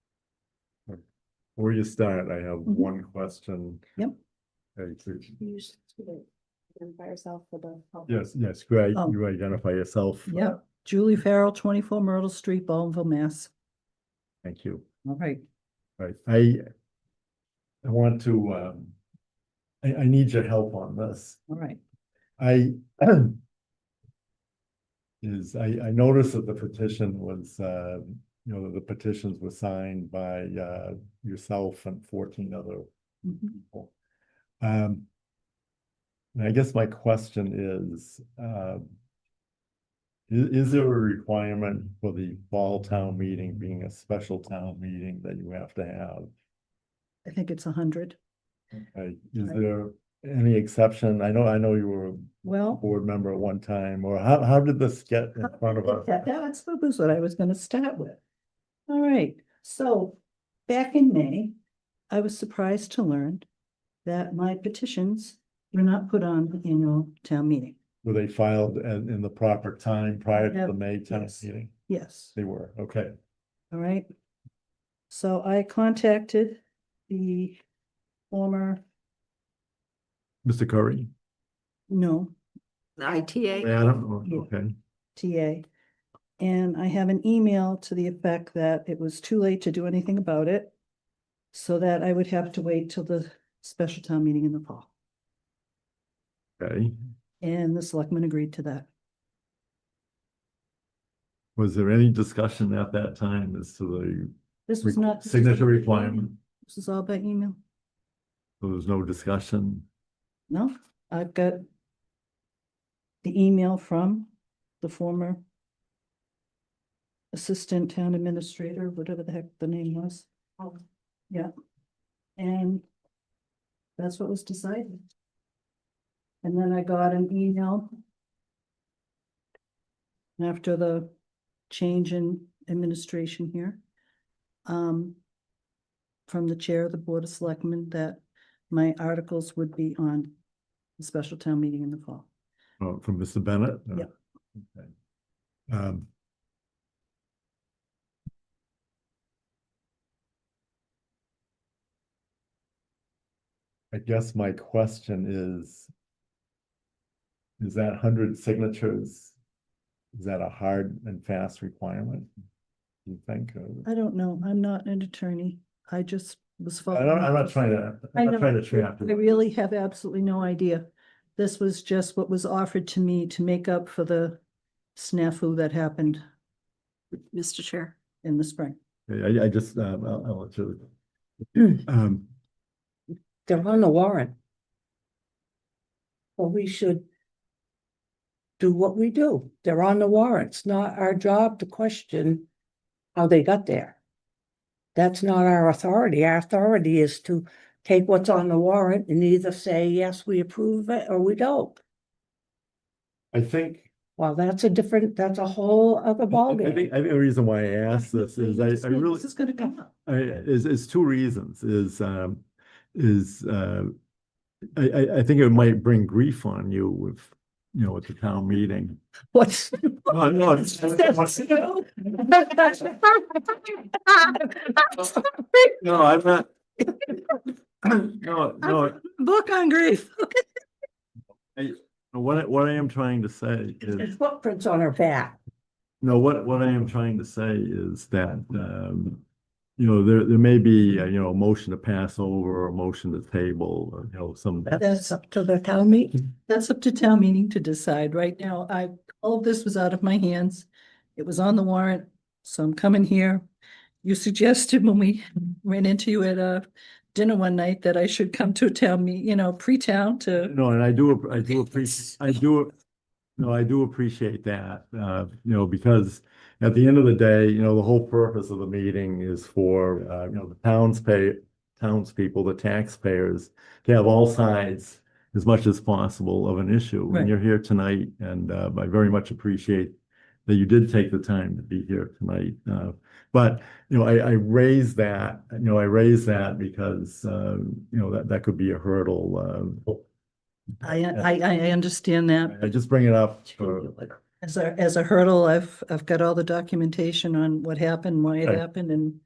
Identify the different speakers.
Speaker 1: Before you start, I have one question.
Speaker 2: Mm-hmm. Yep.
Speaker 1: Okay, please.
Speaker 3: You should identify yourself for the. public.
Speaker 1: Yes, yes, great.
Speaker 2: Oh.
Speaker 1: You identify yourself.
Speaker 2: Yep, Julie Farrell, twenty-four Myrtle Street, Baldenville, Mass.
Speaker 1: Thank you.
Speaker 2: All right.
Speaker 1: Right, I, I want to, um, I, I need your help on this.
Speaker 2: All right,
Speaker 1: I is, I, I noticed that the petition was, uh, you know, the petitions were signed by, uh, yourself and fourteen other
Speaker 2: Mhm.
Speaker 1: people. Um, and I guess my question is, um, i- is there a requirement for the fall town meeting being a special town meeting that you have to have?
Speaker 2: I think it's a hundred.
Speaker 1: Like, is
Speaker 2: Right.
Speaker 1: there any exception? I know, I know you were
Speaker 2: Well.
Speaker 1: board member at one time, or how, how did this get in front of us?
Speaker 2: Yeah, that's what was what I was gonna start with. All right, so back in May, I was surprised to learn that my petitions were not put on the annual town meeting.
Speaker 1: Were they filed in, in the proper time prior to the May town
Speaker 2: Yes.
Speaker 1: meeting?
Speaker 2: Yes,
Speaker 1: They were, okay.
Speaker 2: all right. So I contacted the former,
Speaker 1: Mr. Curry?
Speaker 2: no,
Speaker 3: ITA.
Speaker 1: Adam,
Speaker 2: Yeah.
Speaker 1: okay.
Speaker 2: TA. And I have an email to the effect that it was too late to do anything about it. So that I would have to wait till the special town meeting in the fall.
Speaker 1: Okay.
Speaker 2: And the selectmen agreed to that.
Speaker 1: Was there any discussion at that time as to
Speaker 2: This was
Speaker 1: the
Speaker 2: not.
Speaker 1: signature requirement?
Speaker 2: This is all by email.
Speaker 1: There was no discussion?
Speaker 2: No, I've got the email from the former assistant town administrator, whatever the heck the name was.
Speaker 3: Oh.
Speaker 2: Yeah. And that's what was decided. And then I got an email after the change in administration here, um, from the chair of the Board of Selectmen that my articles would be on the special town meeting in the fall.
Speaker 1: Oh, from Mr. Bennett? Uh,
Speaker 2: Yep.
Speaker 1: okay. Um. I guess my question is. Is that hundred signatures? Is that a hard and fast requirement? You think? or-
Speaker 2: I don't know, I'm not an attorney, I just was.
Speaker 1: I don't, I'm
Speaker 2: following-
Speaker 1: not trying to,
Speaker 2: Uh, I
Speaker 1: I'm not
Speaker 2: know.
Speaker 1: trying to trap
Speaker 2: I
Speaker 1: you.
Speaker 2: really have absolutely no idea. This was just what was offered to me to make up for the snafu that happened
Speaker 3: Mr. Chair.
Speaker 2: in the spring.
Speaker 1: I, I just, um, I'll, I'll let you. Um,
Speaker 4: they're on the warrant. Well, we should do what we do. They're on the warrant. It's not our job to question how they got there. That's not our authority. Our authority is to take what's on the warrant and either say, yes, we approve it, or we don't.
Speaker 1: I think
Speaker 4: Well, that's a different, that's a whole other
Speaker 1: I think, I
Speaker 4: ballgame.
Speaker 1: think the reason why I asked this is I, I really,
Speaker 2: This is gonna come up.
Speaker 1: I, is, is two reasons, is, um, is, uh, I, I, I think it might bring grief on you with, you know, at the town meeting.
Speaker 4: What's?
Speaker 1: No, no, it's- no, I'm not. No, no,
Speaker 4: Book on grief.
Speaker 1: what, I- what I am trying to say is,
Speaker 4: There's footprints on her back.
Speaker 1: no, what, what I am trying to say is that, um, you know, there, there may be, uh, you know, a motion to pass over or a motion to table, or, you know, some.
Speaker 2: That's,
Speaker 4: up to the town meeting.
Speaker 2: that's up to town meeting to decide. Right now, I, all of this was out of my hands. It was on the warrant, so I'm coming here. You suggested when we ran into you at a dinner one night that I should come to a town meet, you know, pre-town to,
Speaker 1: No, and I do, app- I do appreciate, I do, no, I do appreciate that, uh, you know, because at the end of the day, you know, the whole purpose of the meeting is for, uh, you know, the towns pay, townspeople, the taxpayers, to have all sides as much as possible of an issue.
Speaker 2: Right.
Speaker 1: And you're here tonight, and, uh, I very much appreciate that you did take the time to be here tonight. Uh, but, you know, I, I raise that, you know, I raise that because, um, you know, that, that could be a hurdle, um,
Speaker 2: I, I, I understand that.
Speaker 1: I just bring it up for,
Speaker 2: As a, as a hurdle, I've, I've got all the documentation on what happened, why it
Speaker 1: Okay.
Speaker 2: happened, and